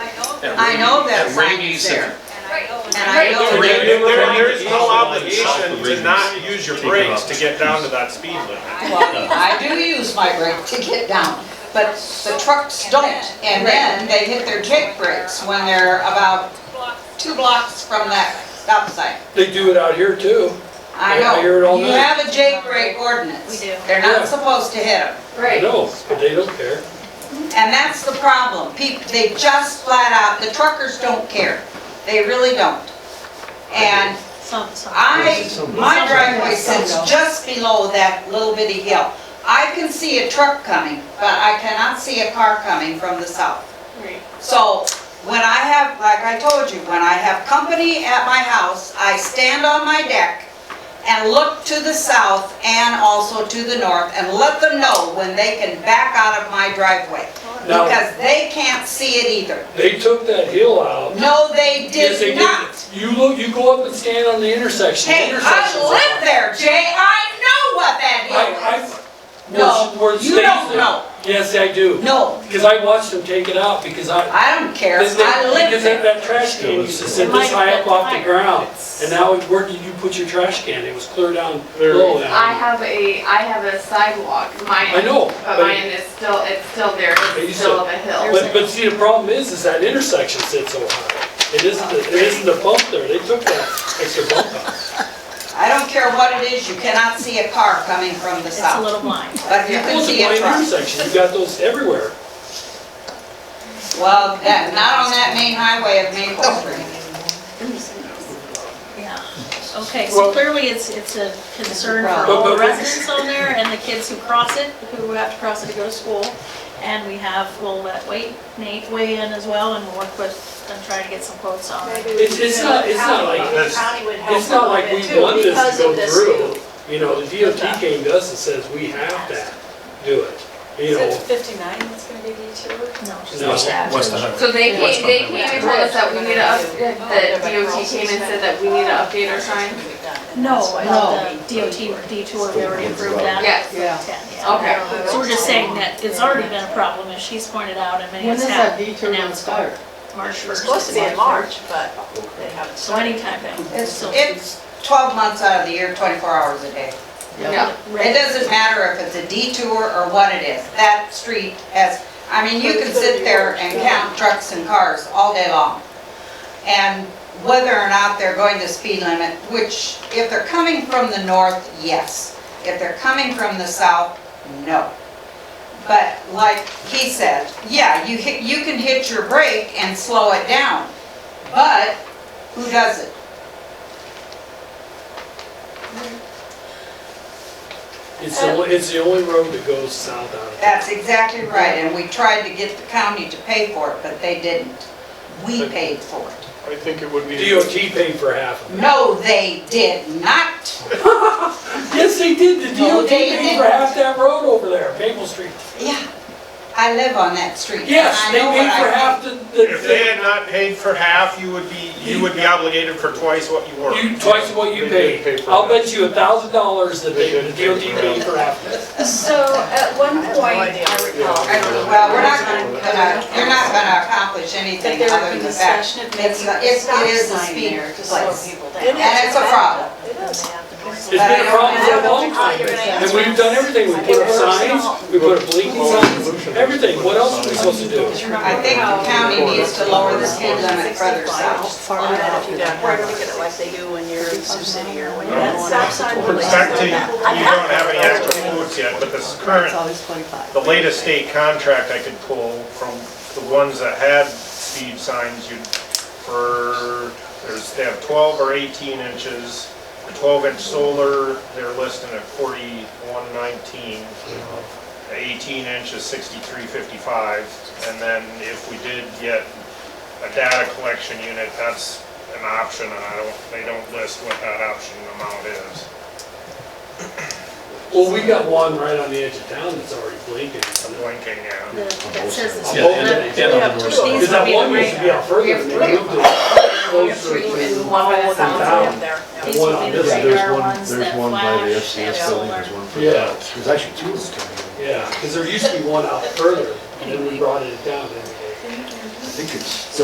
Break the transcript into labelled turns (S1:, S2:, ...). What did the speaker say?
S1: And
S2: I know that
S1: and
S2: sign
S1: Rainey's
S2: is there.
S3: And
S2: And I know
S4: There,
S2: that,
S4: there- there is no obligation to not use your brakes to get down to that speed limit.
S2: well, I do use my brake to get down, but the trucks don't. And then they hit their jake brakes when they're about two blocks from that stop sign.
S5: They do it out here too.
S2: I
S5: Yeah, I
S2: know.
S5: hear it all
S2: You
S5: night.
S2: have a jake brake ordinance.
S3: We do.
S2: They're not
S5: Yeah.
S2: supposed to hit them.
S5: I know, but they don't care.
S2: And that's the problem. People, they just flat out, the truckers don't care. They really don't. And I, my driveway sits just below that little bitty hill. I can see a truck coming, but I cannot see a car coming from the south. So when I have, like I told you, when I have company at my house, I stand on my deck and look to the south and also to the north and let them know when they can back out of my driveway.
S5: Now-
S2: Because they can't see it either.
S5: They took that hill out.
S2: No, they
S5: Yes, they
S2: did not.
S5: You look, you go up and stand on the intersection. The
S2: Hey, I
S5: intersection's
S2: live there, Jay, I know what that
S5: I,
S2: is.
S5: I, well,
S2: No,
S5: where it
S2: you
S5: stays
S2: don't
S5: there.
S2: know.
S5: Yes, I do.
S2: No,
S5: Because I watched them take it out because I,
S2: I don't care,
S5: because they-
S2: I live
S5: because that,
S2: there.
S5: that trash can used to sit
S3: It might
S5: this high
S3: have
S5: up off the
S3: been
S5: ground.
S3: higher.
S5: And now it- where did you put your trash can? It was clear down
S4: There.
S5: below
S6: I
S5: that.
S6: have a, I have a sidewalk, mine.
S5: I know,
S6: But
S5: but,
S6: mine
S5: it-
S6: is still, it's still there,
S5: But you
S6: it's still up a hill.
S5: but, but see, the problem is, is that intersection sits so high. It isn't, the- it isn't the bump there. They took that extra bump out.
S2: I don't care what it is, you cannot see a car coming from the
S3: It's a
S2: south,
S3: little blind.
S2: but you can
S5: Well, it's a
S2: see a
S5: blind
S2: truck.
S5: intersection. You got those everywhere.
S2: Well, that, not on that main highway of Maple
S3: Oh.
S2: Street.
S3: Yeah. Okay, so clearly it's, it's a concern for
S5: But-
S3: all
S5: but-
S3: the residents on there and the kids who cross it, who have to cross it to go to school. And we have, we'll let Wade, Nate weigh in as well and we'll work with, and try to get some quotes on it.
S5: It's, it's not, it's not like,
S4: That's-
S5: it's not like we want this to go through. You know, the DOT came to us and says, we have to do it, you know.
S7: fifty-nine that's gonna be detour?
S3: No.
S5: No.
S1: West of
S6: So they
S1: What's
S6: came, they
S1: behind
S6: came
S1: it?
S6: and told us that we need to, up- that DOT came and said that we need to update our sign?
S3: No, I thought the DOT detour, we already approved that.
S6: Yes,
S3: Yeah, yeah.
S6: okay.
S3: So we're just saying that it's already been a problem, as she's pointed out, and many of us have. And now it's
S8: start?
S3: March first.
S7: Supposed to be in March, but they haven't.
S3: So anytime now.
S2: It's,
S3: So-
S2: it's twelve months out of the year, twenty-four hours a day.
S6: Yeah.
S2: It doesn't matter if it's a detour or what it is, that street has, I mean, you can sit there and count trucks and cars all day long. And whether or not they're going the speed limit, which, if they're coming from the north, yes. If they're coming from the south, no. But like he said, yeah, you hit, you can hit your brake and slow it down, but who does it?
S5: It's
S2: uh,
S5: the, only- it's the only road that goes south out of town.
S2: That's exactly right, and we tried to get the county to pay for it, but they didn't. We paid for it.
S4: I think it would be.
S5: DOT paid for half of it.
S2: No, they did not.
S5: Yes, they did. The
S2: No,
S5: DOT
S2: they
S5: paid for
S2: didn't.
S5: half that road over there, Maple Street.
S2: Yeah, I live on that street.
S5: Yes,
S2: I
S5: they
S2: know what
S5: paid
S2: I
S5: for
S2: think.
S5: half the,
S4: If they
S5: the,
S4: had not paid for half, you would be, you would be obligated for twice what you were.
S5: you, twice what you
S4: They did pay
S5: paid.
S4: for
S5: I'll
S4: that.
S5: bet you a thousand dollars that they,
S4: They
S5: the
S4: did pay
S5: DOT
S4: for
S5: paid for
S4: that.
S5: half of it.
S8: So at one
S7: I have no
S8: point,
S7: idea.
S8: I recall.
S4: Yeah.
S2: Well, we're not gonna, you're not gonna accomplish
S8: That
S2: anything
S8: there
S2: other
S8: would be
S2: than that.
S8: discussion of
S2: It's,
S8: making
S2: a-
S8: a
S2: it's,
S8: stop
S2: it is a
S8: sign
S2: speed
S8: there to slow
S2: place.
S8: people
S7: It
S8: down.
S7: is.
S2: And it's a problem.
S7: It is.
S5: It's been a problem for a long time, and we've done everything. We put up signs, we put up blinking signs, everything. What else are we supposed to do?
S2: I think the county needs to lower the speed limit further south.
S7: Farther out, you don't worry to get it like they do when you're in Sioux City or when you're
S4: That
S7: going
S4: stop
S7: up
S4: sign
S7: to-
S4: With respect to, you don't have any extra quotes yet, but this current, the latest state contract I could pull from the ones that had speed signs, you'd, for, there's, they have 12 or 18 inches. The 12-inch solar, they're listing at 4119. The 18 inch is 6355. And then if we did get a data collection unit, that's an option, and I don't, they don't list what that option amount is.
S5: Well, we got one right on the edge of town that's already blinking.
S4: I'm blinking, yeah.
S3: The- That says it's.
S1: Yeah, and-
S3: that-
S1: and on the
S3: which
S1: north
S3: needs to
S5: Because that
S3: be the
S5: one used to be out further, and they moved it closer
S8: Three
S5: to
S8: and one by the
S5: the
S8: sound.
S7: Up
S5: town.
S7: there.
S3: These would be the
S5: Yeah,
S9: Yeah, there's
S3: radar
S9: one,
S3: ones that
S9: there's one by the
S3: flash,
S9: FCS
S3: that
S9: building, there's
S3: solar.
S9: one for
S5: Yeah.
S9: that. There's actually two of them coming in.
S5: Yeah, because there used to be one out further, and then we brought it down every day.
S9: I think it's